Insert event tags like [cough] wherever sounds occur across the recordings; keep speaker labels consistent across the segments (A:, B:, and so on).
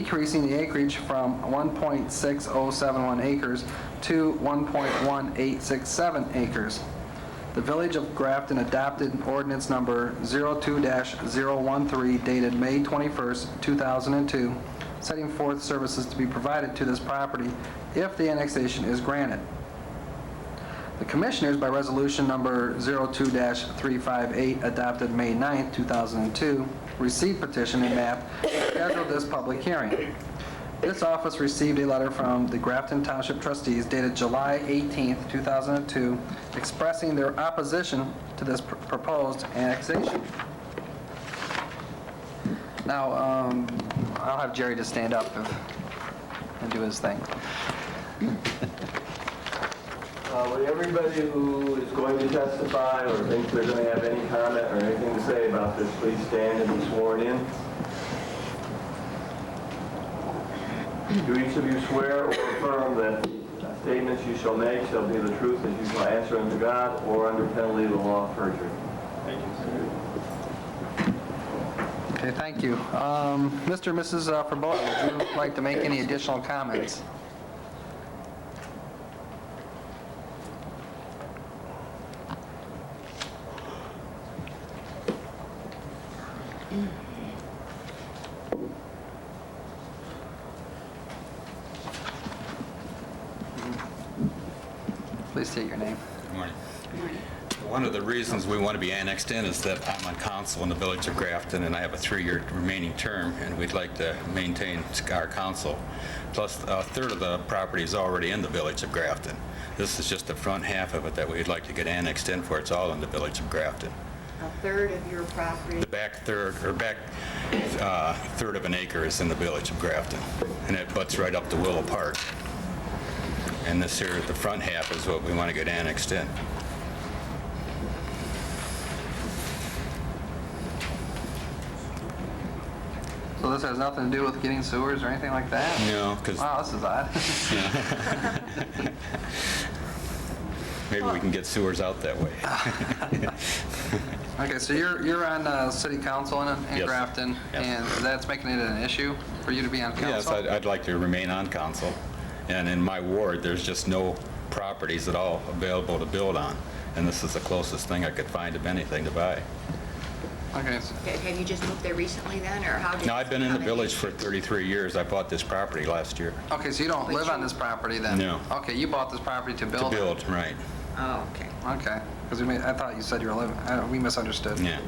A: decreasing the acreage from 1.6071 acres to 1.1867 acres. The Village of Grafton adopted ordinance number 02-013 dated May 21st, 2002, setting forth services to be provided to this property if the annexation is granted. The Commissioners, by resolution number 02-358, adopted May 9, 2002, received petition and map, and scheduled this public hearing. This office received a letter from the Grafton Township trustees dated July 18, 2002, expressing their opposition to this pr- proposed annexation. Now, um, I'll have Jerry just stand up if- and do his thing.
B: Uh, Would everybody who is going to testify or thinks they're going to have any comment or anything to say about this, please stand and be sworn in? Do each of you swear or affirm that the statements you shall make shall be the truth as you shall answer unto God or under penalty of the law of perjury? Thank you,
A: Okay, thank you. Um, Mr. and Mrs. uh, Verboten, would you like to make any additional comments? Please state your name.
C: Good morning. One of the reasons we want to be annexed in is that I'm on council in the village of Grafton, and I have a three-year remaining term, and we'd like to maintain our council. Plus, a third of the property is already in the village of Grafton. This is just the front half of it that we'd like to get annexed in for. It's all in the village of Grafton.
D: a third of your property.
C: The back third, or back uh, third of an acre is in the village of Grafton, and it butts right up to Willow Park. And this here, the front half is what we want to get annexed in.
A: So this has nothing to do with getting sewers or anything like that?
C: No, because
A: Wow, this is odd. [laughs]
C: Maybe we can get sewers out that way.
A: Okay, so you're, you're on uh, city council in in
C: Yes.
A: Grafton,
C: Yes.
A: and that's making it an issue for you to be on
C: Yes, I'd
A: council?
C: I'd like to remain on council. And in my ward, there's just no properties at all available to build on. And this is the closest thing I could find of anything to buy.
A: Okay, so-
D: Okay, Have you just moved there recently then, or how did?
C: Now, I've been in the
D: how did-
C: village for 33 years. I bought this property last year
A: okay, so you don't live on this property then?
C: No.
A: Okay, you bought this property to build? it.
C: to build, right.
D: Oh, okay.
A: Okay, because we made, I thought you said you were living, I don't- we misunderstood.
C: Yeah.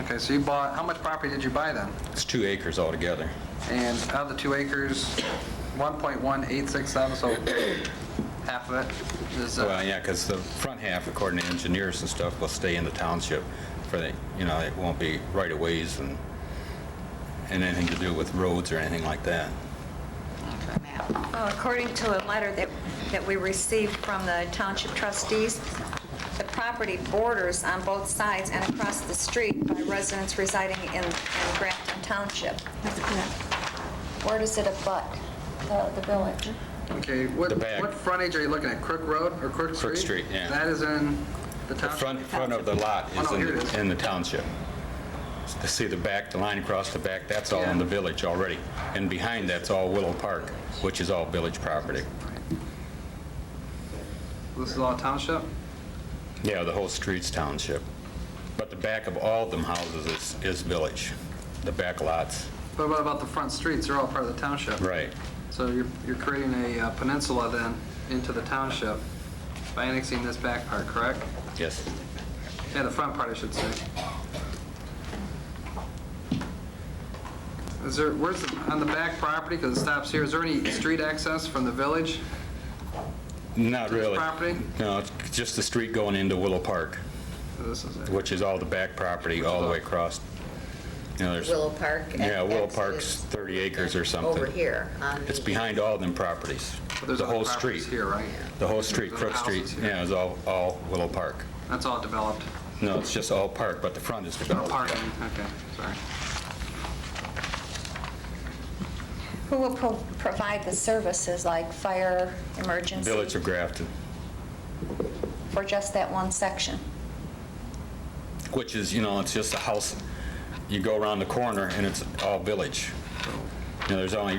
A: Okay, so you bought, how much property did you buy then?
C: It's two acres altogether.
A: And out of the two acres, 1.1867, so half of it is, uh,
C: Well, yeah, because the front half, according to engineers and stuff, will stay in the township for the, you know, it won't be right of ways and, and anything to do with roads or anything like that.
D: The map.
E: Well, Uh, according to a letter that, that we received from the township trustees, the property borders on both sides and across the street by residents residing in in Grafton Township. Where does it abut the the village?
A: okay, what,
C: The back.
A: what frontage are you looking at, Crook Road or Crook Street?
C: Street, yeah.
A: That is in the
C: The
A: township?
C: front, front of the lot
A: Oh,
C: is
A: no,
C: in,
A: here it is.
C: the- in the township. To See the back, the line across the back, that's all in the village already. And behind that's all Willow Park, which is all village property.
A: This is all township?
C: Yeah, the whole street's township. But the back of all them houses is, is village, the back lots.
A: But what about the front streets? They're all part of the township.
C: Right.
A: So you're, you're creating a uh, peninsula then into the township by annexing this back part, correct?
C: Yes.
A: Yeah, the front part, I should say. Is there, where's, the- on the back property, because it stops here, is there any street access from the village?
C: Not really.
A: property?
C: No, it's just the street going into Willow Park,
A: This is it.
C: which is all the back property, all the way across. You know, there's,
F: Willow Park. and
C: yeah, Willow
F: Exodus
C: Park's 30 acres or something.
F: Over here on
C: It's
F: the-
C: behind all them properties.
A: But there's
C: The
A: other
C: whole
A: properties
C: street.
A: Here, right?
C: The whole street,
A: There's other
C: Crook Street,
A: houses here.
C: yeah, is all, all Willow Park.
A: That's all developed.
C: No, it's just all park, but the front is
A: No
C: developed.
A: parking, okay, sorry.
E: Who will pro- provide the services like fire, emergency,
C: Village of Grafton,
E: for just that one section?
C: which is, you know, it's just a house. You go around the corner and it's all village. You know, there's only